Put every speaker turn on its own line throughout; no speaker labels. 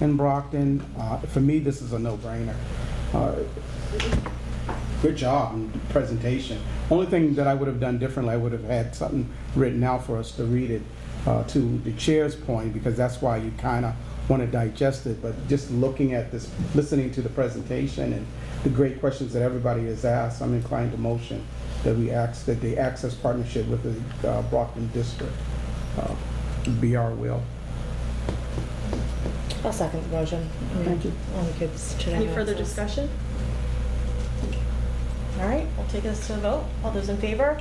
in Brockton. Uh, For me, this is a no-brainer. Uh, Good job and presentation. Only thing that I would have done differently, I would have had something written out for us to read it uh, to the chair's point, because that's why you kind of want to digest it. But just looking at this, listening to the presentation and the great questions that everybody has asked, I'm inclined to motion that we ask, that the access partnership with the uh, Brockton District uh, be our will.
I'll second the motion.
Thank you.
Only kids should have
Any further
access.
discussion? All right, we'll take this to a vote. All those in favor?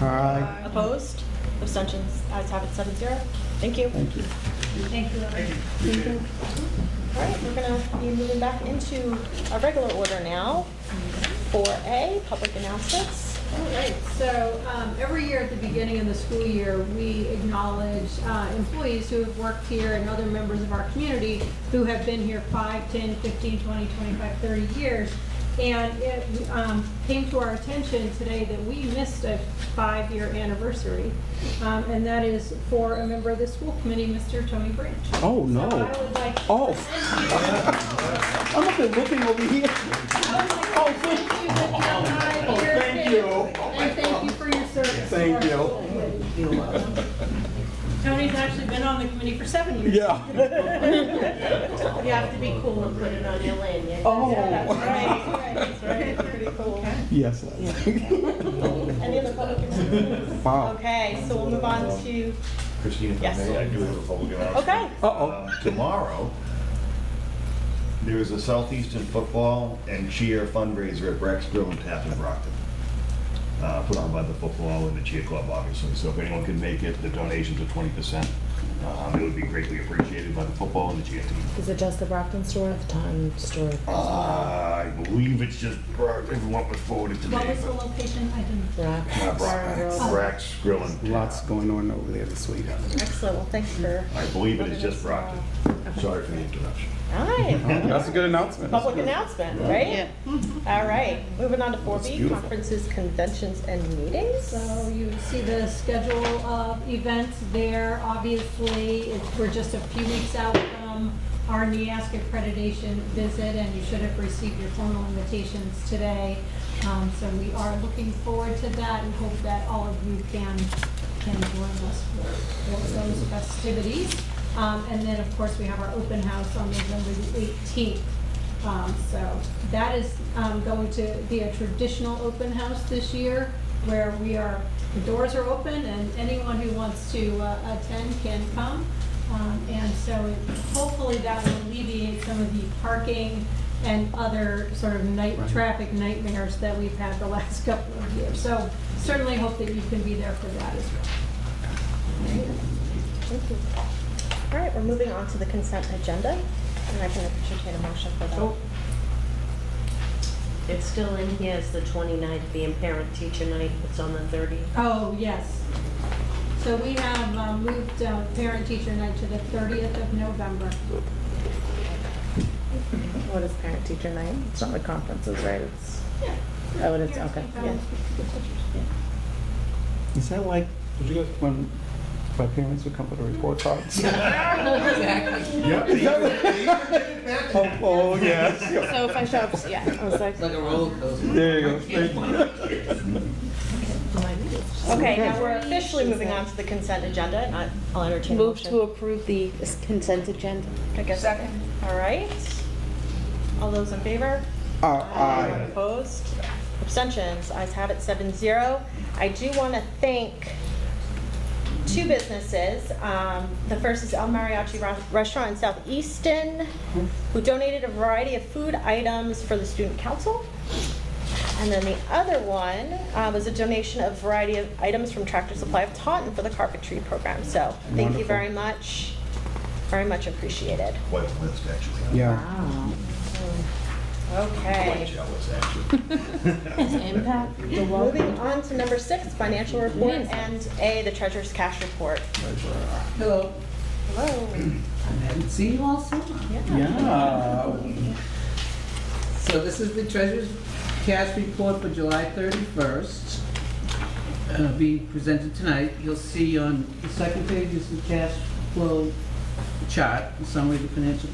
Aye.
Opposed? Abstentions? Ayes have it, seven zero. Thank you.
Thank you.
All right, we're gonna be moving back into our regular order now. For A, public announcements.
All right, so um, every year at the beginning of the school year, we acknowledge uh, employees who have worked here and other members of our community who have been here 5, 10, 15, 20, 25, 30 years. And it um, came to our attention today that we missed a five-year anniversary, Um, and that is for a member of the school committee, Mr. Tony Branch.
Oh, no.
So I would like to
Oh.
thank
I'm up there looking over here.
you. I would like to thank you with your
Oh,
five-year
thank you. Oh
and thank you for your service.
Thank you.
Tony's actually been on the committee for seven years.
Yeah.
You have to be cool and put it on your lanyard.
Oh.
That's right, that's right.
Yes. Les.
Any other public announcements?
Wow.
Okay, so we'll move on to,
Christine, if I
Yes.
may, I do have a public announcement.
okay.
Uh-oh.
Um, Tomorrow, there is a Southeastern Football and Cheer fundraiser at Breck's Grill in Tappan Brockton, uh, put on by the football and the cheer club, obviously. So if anyone can make it, the donations are 20%. Um, It would be greatly appreciated by the football and the cheer team.
Is it just the Brockton store or the Taunton store?
I believe it's just, Brock- everyone was forwarded to me.
What was the Oh. location? I didn't.
Brock-
but, uh, Brock- Breck's Grill in
Lots going on over there this week.
Excellent, well, thanks for,
I believe it is just Brockton. Sorry for the interruption.
all right.
That's a good announcement.
Public announcement, right? All right, moving on to 4B,
beautiful.
conferences, conventions, and meetings.
So you see the schedule of events there, obviously, it's, we're just a few weeks out from our NEASC accreditation visit, and you should have received your formal invitations today. Um, so we are looking forward to that and hope that all of you can, can join us for, for those festivities. Um, and then, of course, we have our open house on November the eighteenth. Um, So that is um, going to be a traditional open house this year where we are, the doors are open and anyone who wants to uh, attend can come. Um, And so it- hopefully that will alleviate some of the parking and other sort of night,
Right.
traffic nightmares that we've had the last couple of years. So certainly hope that you can be there for that as well.
Thank you. All right, we're moving on to the consent agenda, and I can entertain a motion for
Oh,
that.
It's still in here as the 29th, being parent teacher night, it's on the 30th.
Oh, yes. So we have uh, moved uh, parent-teacher night to the 30th of November.
What is parent teacher night? It's not like conferences, right? It's, oh, it is, okay, yeah.
Is that like when my parents would come for the report cards? Oh, oh, yes.
So if I show up, yeah, I was like,
like a roller coaster.
There you go. Thank you.
Okay, now we're officially moving on to the consent agenda, and I- I'll entertain a
Move to
motion.
approve the consent agenda.
Second. All right. All those in favor?
Uh, aye.
Opposed? Abstentions? Eyes have it, seven zero. I do want to thank two businesses. Um, The first is El Mariachi Ra- Restaurant in Southeaston, who donated a variety of food items for the student council. And then the other one uh, was a donation of variety of items from Tractor Supply of Taunton for the carpentry program. So thank you
Wonderful.
very much, very much appreciated.
Quite a list, actually.
Yeah.
Okay.
Quite jealous, actually.
Impact the law.
Moving on to number six, financial report and A, the treasurer's cash report.
Hello.
Hello.
I haven't seen you all summer.
Yeah.
So this is the treasurer's cash report for July 31st, uh, being presented tonight. You'll see on the second page is the cash flow chart, a summary of the financial